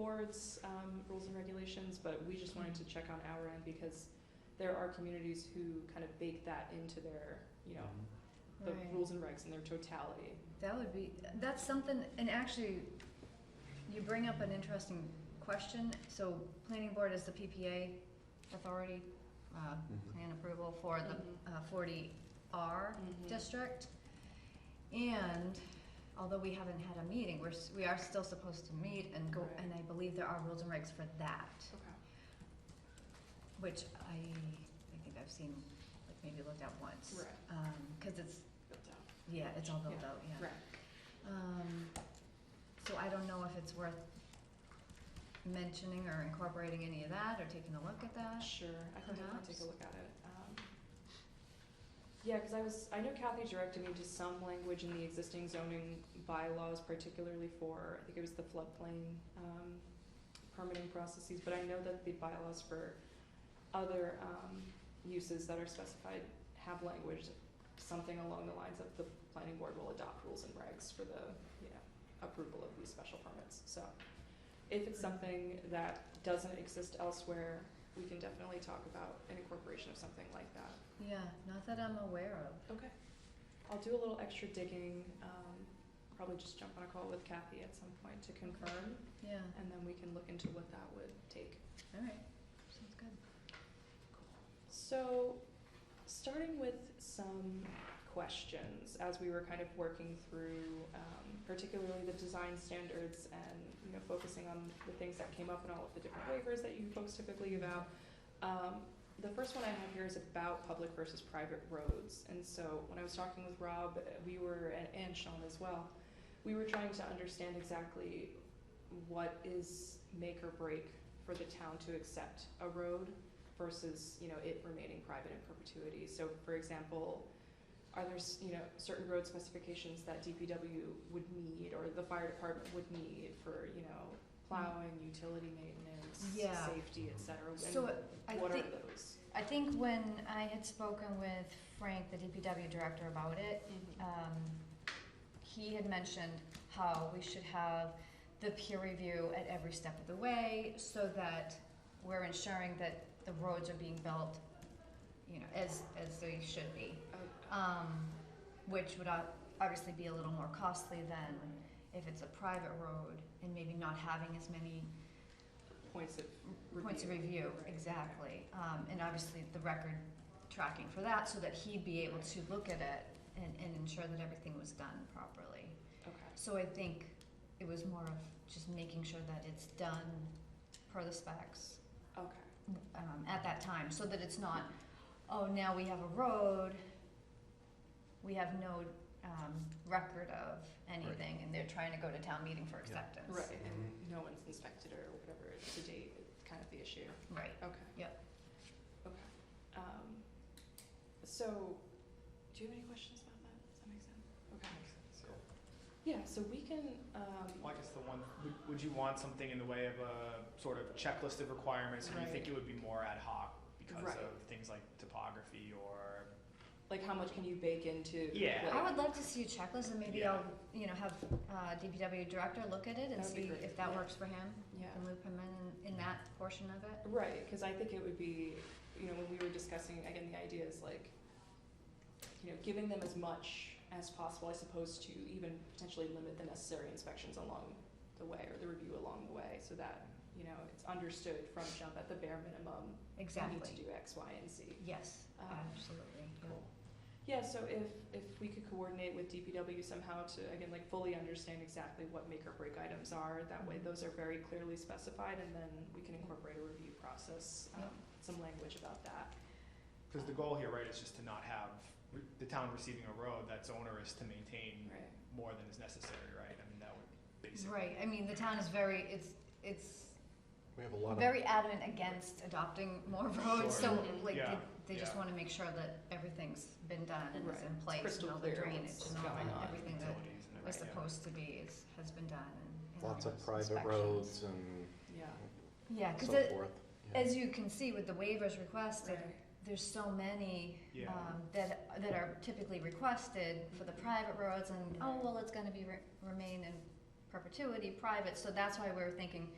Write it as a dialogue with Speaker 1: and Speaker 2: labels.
Speaker 1: board's um, rules and regulations, but we just wanted to check on our end because there are communities who kind of bake that into their, you know, the
Speaker 2: Right.
Speaker 1: rules and regs in their totality.
Speaker 2: That would be, that's something, and actually, you bring up an interesting question. So planning board is the PPA authority, uh,
Speaker 3: Mhm.
Speaker 2: plan approval for the uh, forty R
Speaker 1: Mhm.
Speaker 2: district. And although we haven't had a meeting, we're, s- we are still supposed to meet and go,
Speaker 1: Right.
Speaker 2: and I believe there are rules and regs for that,
Speaker 1: Okay.
Speaker 2: which I, I think I've seen, like maybe looked at once.
Speaker 1: Right.
Speaker 2: Um, cause it's,
Speaker 1: Built out.
Speaker 2: yeah, it's all built
Speaker 1: Yeah.
Speaker 2: out, yeah.
Speaker 1: Right.
Speaker 2: Um, so I don't know if it's worth mentioning or incorporating any of that or taking a look at that.
Speaker 1: Sure, I can definitely take
Speaker 2: Perhaps.
Speaker 1: a look at it. Um, Yeah, because I was, I know Kathy directed me to some language in the existing zoning bylaws, particularly for, I think it was the floodplain um, permitting processes, but I know that the bylaws for other um, uses that are specified have language, something along the lines of the planning board will adopt rules and regs for the, you know, approval of these special permits. So if it's something that doesn't exist elsewhere, we can definitely talk about an incorporation of something like that.
Speaker 2: Yeah, not that I'm aware of.
Speaker 1: Okay. I'll do a little extra digging, um, probably just jump on a call with Kathy at some point to confirm,
Speaker 2: Yeah,
Speaker 1: and then we can look into what that would take.
Speaker 2: all right, sounds good.
Speaker 1: So, starting with some questions as we were kind of working through, um, particularly the design standards and you know focusing on the things that came up in all of the different waivers that you folks typically give out. Um, the first one I have here is about public versus private roads, and so when I was talking with Rob, uh, we were and, and Sean as well, we were trying to understand exactly what is make or break for the town to accept a road versus you know it remaining private in perpetuity. So, for example, are there s- you know certain road specifications that DPW would need or the fire department would need for you know plowing, utility maintenance,
Speaker 2: Mm-hmm. Yeah.
Speaker 1: safety, et cetera? And
Speaker 2: So I
Speaker 1: what
Speaker 2: think,
Speaker 1: are those?
Speaker 2: I think when I had spoken with Frank, the DPW director about it, um, he had mentioned how we should have the peer review at every step of the way so that we're ensuring that the roads are being built, you know, as, as they should be.
Speaker 1: Oh,
Speaker 2: Um, which would ob- obviously be a little more costly than if it's a private road and maybe not having as many
Speaker 1: points of review.
Speaker 2: points of review,
Speaker 1: Right, okay.
Speaker 2: exactly. Um, and obviously the record tracking for that so that he'd be able to look at it and, and ensure that everything was done properly.
Speaker 1: Okay.
Speaker 2: So I think it was more of just making sure that it's done per the specs
Speaker 1: Okay.
Speaker 2: um, at that time, so that it's not, oh, now we have a road, we have no um, record of anything, and they're trying to go to town meeting for acceptance.
Speaker 1: Right, and no one's inspected or whatever to date, it's kind of the issue.
Speaker 2: Right.
Speaker 1: Okay.
Speaker 2: Yep.
Speaker 1: Okay. Um, so, do you have any questions about that? Does that make sense? Okay. Yeah, so we can, um,
Speaker 4: Well, I guess the one, would, would you want something in the way of a sort of checklist of requirements, or do you think
Speaker 1: Right.
Speaker 4: it would be more ad hoc because
Speaker 1: Right.
Speaker 4: of things like topography or?
Speaker 1: like how much can you bake into?
Speaker 4: Yeah.
Speaker 1: like-
Speaker 2: I would love to see a checklist, and maybe
Speaker 4: Yeah.
Speaker 2: I'll, you know, have uh, DPW director look at it and
Speaker 1: That would be
Speaker 2: see
Speaker 1: great,
Speaker 2: if that
Speaker 1: yeah.
Speaker 2: works for him,
Speaker 1: Yeah.
Speaker 2: and loop him in, in that portion of it.
Speaker 1: Right, because I think it would be, you know, when we were discussing, again, the idea is like, you know, giving them as much as possible, I suppose, to even potentially limit the necessary inspections along the way or the review along the way so that, you know, it's understood from jump at the bare minimum, you need
Speaker 2: Exactly.
Speaker 1: to do X, Y, and Z.
Speaker 2: Yes,
Speaker 1: Um,
Speaker 2: absolutely. yeah.
Speaker 1: Yeah, so if, if we could coordinate with DPW somehow to, again, like fully understand exactly what make or break items are, that way
Speaker 2: Mhm.
Speaker 1: those are very clearly specified and then we can incorporate a review process, um,
Speaker 2: Yep.
Speaker 1: some language about that.
Speaker 4: Because the goal here, right, is just to not have re- the town receiving a road that's onerous to maintain
Speaker 1: Right.
Speaker 4: more than is necessary, right? I mean, that would basically.
Speaker 2: Right, I mean, the town is very, it's, it's
Speaker 3: We have a lot of,
Speaker 2: very adamant against adopting more roads, so
Speaker 4: Sure.
Speaker 1: Mm-hmm.
Speaker 2: like, they,
Speaker 4: Yeah,
Speaker 2: they just
Speaker 4: yeah.
Speaker 2: wanna make sure that everything's been done and is
Speaker 1: Right.
Speaker 2: in place,
Speaker 1: crystal
Speaker 2: and all the
Speaker 1: clear
Speaker 2: drainage
Speaker 1: what's
Speaker 2: and all
Speaker 1: going on,
Speaker 2: that, everything that
Speaker 4: Utilities and
Speaker 2: was
Speaker 4: everything, yeah.
Speaker 2: supposed to be is, has been done and. and all
Speaker 3: lots of
Speaker 2: those
Speaker 3: private
Speaker 2: inspections.
Speaker 3: roads and
Speaker 1: Yeah.
Speaker 2: Yeah, cause
Speaker 3: so
Speaker 2: it-
Speaker 3: forth. Yeah.
Speaker 2: as you can see with the waivers requested, there's so many,
Speaker 4: Yeah.
Speaker 2: um, that, that are typically requested for the private roads and, oh,
Speaker 1: Right.
Speaker 2: well, it's gonna be, re- remain in perpetuity private, so that's why we were thinking,